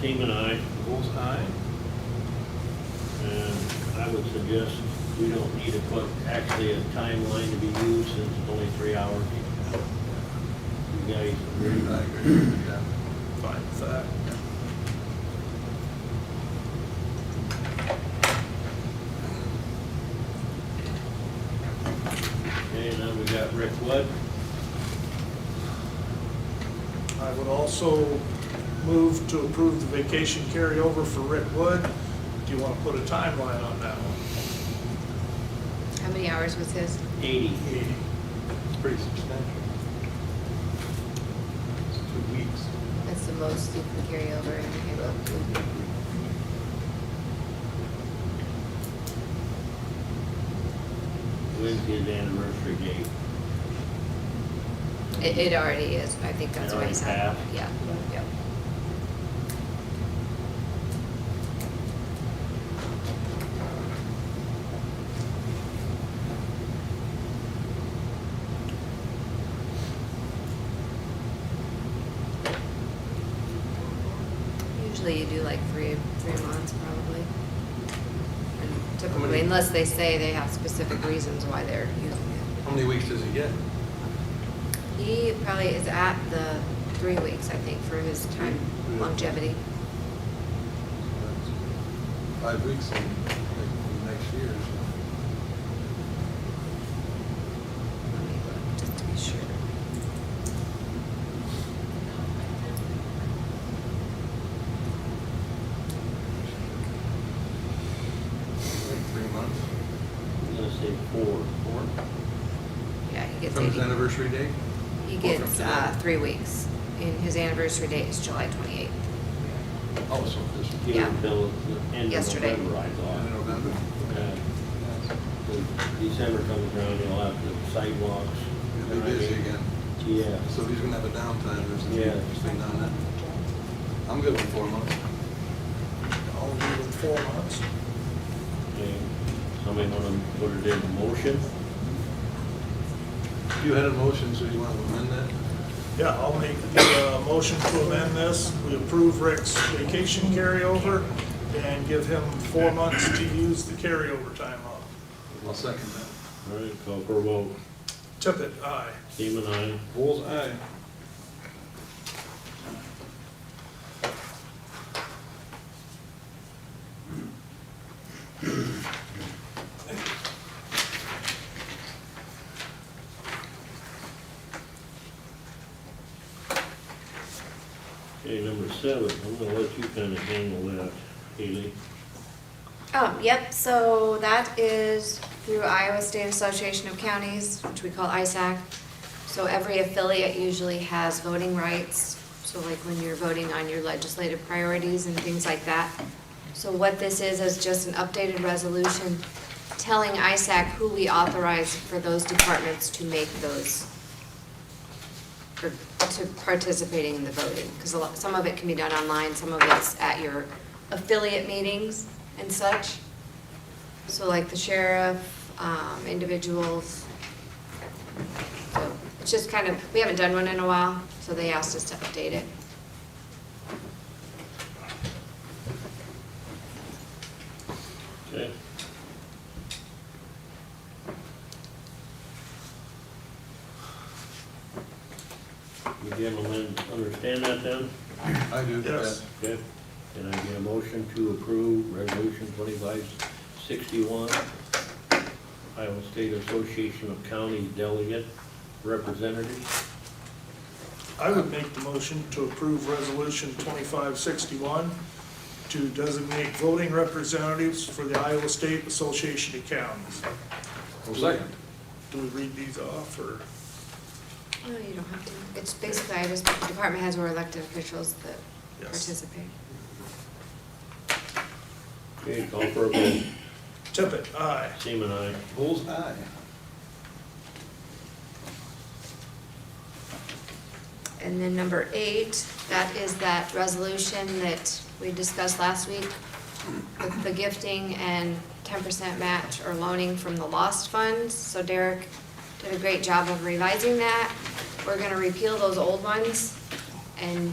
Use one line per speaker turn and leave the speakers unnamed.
Seaman, aye.
Bull's eye?
And I would suggest we don't need to put actually a timeline to be used since it's only three hours. You guys agree?
I agree, yeah.
Fine with that.
Okay, now we got Rick Wood.
I would also move to approve the vacation carryover for Rick Wood. Do you want to put a timeline on that one?
How many hours was his?
Eighty.
It's pretty substantial. It's two weeks.
That's the most you can carry over in Halo.
When's his anniversary date?
It, it already is, I think that's
It
what
already
he said.
passed?
Yeah, yeah. Usually you do like three, three months probably. And Typically, unless they say they have specific reasons why they're using it.
How many weeks does he get?
He probably is at the three weeks, I think, for his time longevity.
Five weeks in, in next year, so.
Let me look, Just to be sure.
like three months.
I'm gonna say four.
Four?
Yeah, he gets
From his
80.
anniversary date?
He
Or from
gets
today?
uh, three weeks, and his anniversary date is July 28th.
Oh, so this is
Give
Yeah.
Until the end of
Yesterday.
November, I
in
thought.
November?
Uh, when December comes around, you'll have the sidewalks.
He'll be busy again.
Yeah.
So he's gonna have a downtime, there's
Yeah.
an interesting on that. I'm good with four months.
I'll leave it four months.
Okay. Somebody wanna put it in a motion?
You had a motion, so you want to amend that?
Yeah, I'll make the uh, motion to amend this. We approve Rick's vacation carryover and give him four months to use the carryover time off.
I'll second that.
All right, call for a vote.
Tippit, aye.
Seaman, aye.
Bull's eye.
Okay, number seven, I'm gonna let you kind of handle that, Haley.
Um, yep, so that is through Iowa State Association of Counties, which we call ISAC. So every affiliate usually has voting rights, so like when you're voting on your legislative priorities and things like that. So what this is, is just an updated resolution telling ISAC who we authorize for those departments to make those, for- to participating in the voting, because a lot, some of it can be done online, some of it's at your affiliate meetings and such. So like the sheriff, um, individuals. So It's just kind of, we haven't done one in a while, so they asked us to update it.
Okay. You gentlemen understand that then?
I do.
Yes.
Okay. Can I get a motion to approve Resolution twenty-five sixty-one, Iowa State Association of Counties Delegate Representatives?
I would make the motion to approve Resolution 2561 to designate voting representatives for the Iowa State Association of Counties.
I'll second.
Do we read these off, or?
No, Oh, you don't have to. It's basically, I just, the department has or elected officials that
Yes.
participate.
Okay, call for a vote.
Tippit, aye.
Seaman, aye.
Bull's eye.
And then number eight, that is that resolution that we discussed last week, with the gifting and ten percent match or loaning from the lost funds. So Derek did a great job of revising that. We're gonna repeal those old ones and